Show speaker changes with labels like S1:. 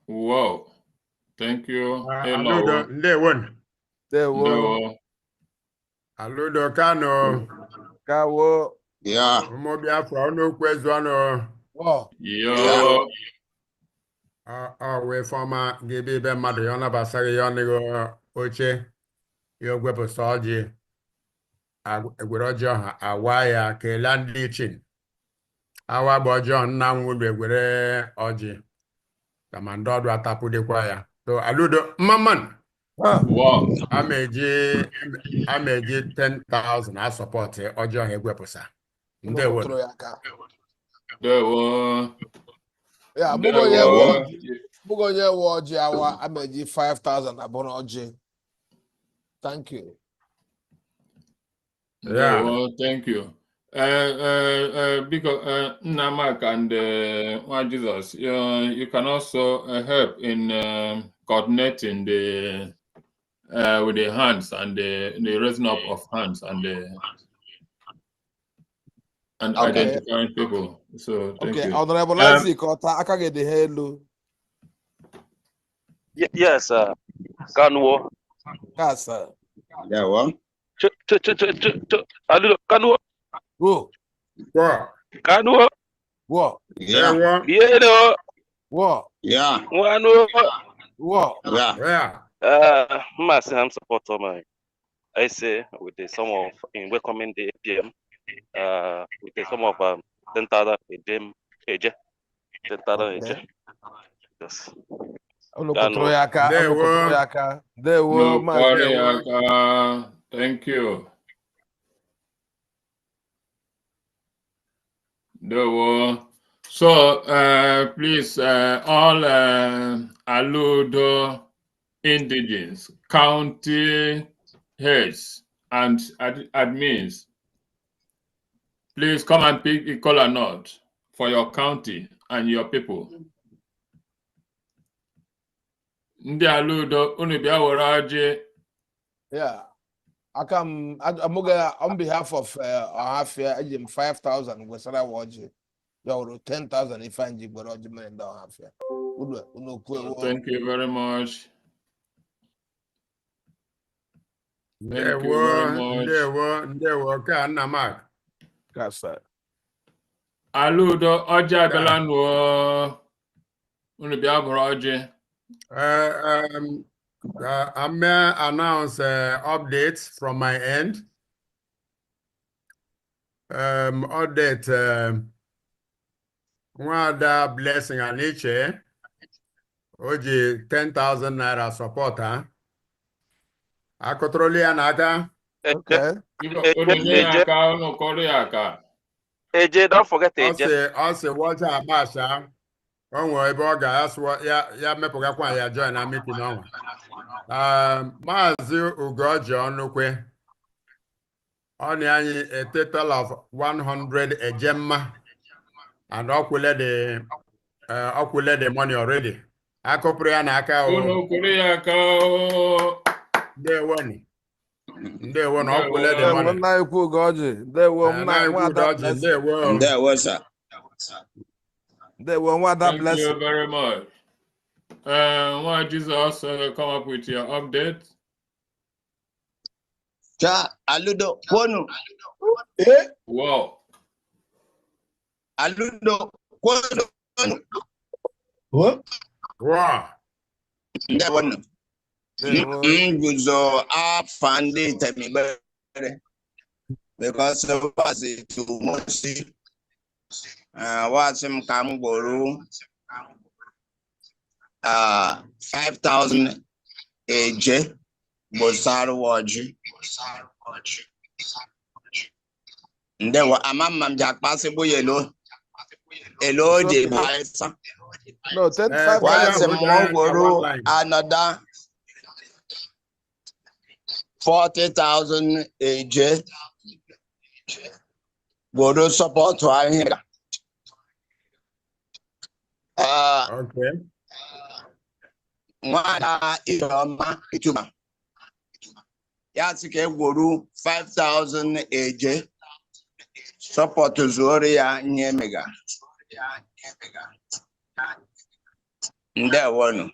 S1: Wow. Thank you.
S2: Ah,
S1: Hello.
S2: alụdo ndewo nụ.
S3: Ndewo.
S1: Hello.
S2: alụdo kanụ
S3: Kawo.
S4: Yeah.
S2: ụmụ biafra ọnụokwu ezu anụ
S1: Yo.
S2: Ọ- ọ wee fọma ga-ebe ibe mmadụ ya ọ nabasaghị ya ọnụghị oche ya ogwepụsa ọjị Agw- egwere e ọjị ọha awa ya kelee ndị ichin awa gba ọjị ọha nna nwụlụ egwere ọjị kama ndị ọdụ atapụdekwa ya so alụdo mmamanụ
S3: Ha.
S1: Wow.
S2: a ma-eji a ma-eji 10,000 asọpọtụ ọjọọ ha egwepụsa ndewo
S4: Tụrụ ya aka.
S1: Ndewo.
S4: Ya, bụgo onye nwe
S1: Ndewo.
S4: ọjị- bụgo onye nwe ọjị awa amaji 5,000 abụrụ ọjị. Thank you.
S2: Yeah.
S1: Ndewo. Thank you. Uh, uh, uh, because uh, Namak and uh, Nwa Jesus, uh, you can also uh, help in um coordinating the uh, with the hands and the, the raising up of hands and the and
S4: Okay.
S1: identifying people. So thank
S4: Okay,
S1: you.
S4: Honorable
S1: Um,
S4: Isaac, ọta aka gị dị ha elu.
S5: Ye- Yes, uh, Kanwo.
S4: Kasa.
S6: Ndewo.
S5: Ch- ch- ch- ch- ch- ch- a little- Kanwo,
S4: Wo,
S2: Gwọ,
S5: Kanwo,
S4: wo,
S6: Yeah.
S2: ndewo,
S5: Yelo,
S4: wo,
S6: Yeah.
S5: Wano,
S4: wo.
S6: Yeah.
S2: yeah.
S5: uh, Massey, I'm supporter, my. I say, with the sum of, in welcoming the APM, uh, with the sum of, um, ten thousand, a dem, a je, ten thousand, a je. Yes.
S4: Unu
S5: Daalụ.
S4: kụtụrụ ya aka, unu
S2: Ndewo.
S4: kụtụrụ ya aka. Ndewo,
S1: No uh,
S4: maazị.
S1: worry,
S2: Ndewo.
S1: Aka. Thank you. Ndewo. So, uh, please, uh, all uh, Aludo indigens, county heads, and ad- admins, please come and pick a color note for your county and your people. Ndị Aludo, unu bịa were ọjị
S4: Yeah. Aka m, amụga, on behalf of uh, Ọhafịa, eji m 5,000 gwesara wa ọjị. Ya wụrụ 10,000 ife anyị ji gbere ọjị mere ndị Ọhafịa. Unu, unu kwuo. ewo.
S1: Thank you very much. Thank you
S2: Ndewo,
S1: very much.
S2: ndewo, ndewo, ka nna Mark.
S4: Kasa.
S1: Aludo ọjị abịala nụọ unu bịa bụrụ ọjị.
S2: Uh, um, uh, I may announce uh, updates from my end. Um, update, um, Nwada Blessing Aniche, Oji, 10,000 naira supporter. Akọtọrọla ya n'aka.
S4: Okay.
S1: Unu nye ya aka unu kụrụ ya aka.
S5: A je, don't forget
S2: Ọ
S5: a
S2: sị
S5: je.
S2: ọ sị wọcha agbasa o nwere ebe ọ ga-asụ ya ya mepụgakwa ya join na mitin ọnwa Um, maazị ugoji ọnụkwe ọnị anyị a total of 100 ejemma and ọkwụle the eh, ọkwụle the money already akụpụrụ ya n'aka o
S1: Unu kụrụ ya aka oo.
S2: ndewonu ndewonu ọkwụle the
S1: Ndewo,
S2: money
S4: Ndewo, nna anyị kwuo gị ọjị. Ndewo,
S2: Eh,
S4: nna
S2: na
S4: anyị
S2: ikwu
S4: nwaada
S2: ugoji
S4: Blessing.
S2: ndewo
S6: Ndewo, sir.
S4: Ndewo, nwaada
S1: Thank you
S4: Blessing.
S1: very much. Uh, Nwa Jizọs uh, come up with your update.
S6: Cha aludo kwonu.
S4: Eh?
S1: Wow.
S6: Aludo kwonu.
S2: Wow.
S6: Ndewo.
S4: Ndewo.
S6: M guzo afọ ndị itemibere. Because of us to mosi. Wasị m ka m gboro. ah, 5,000 eje. Gbosara ọjị. Ndewo, ama mma m ji akpasịgbu ya elo. Elo o ji baa ịsa.
S4: No, ten
S2: Eh,
S4: five
S2: why
S6: Once
S4: thousand.
S2: am I-
S6: more guru,
S2: Outline.
S6: another forty thousand AJ. Guru support to our here. Uh,
S2: Okay.
S6: Nwada Iroma Ituma. Yasike guru five thousand AJ. Support to Zoria Nyemega. ndewonu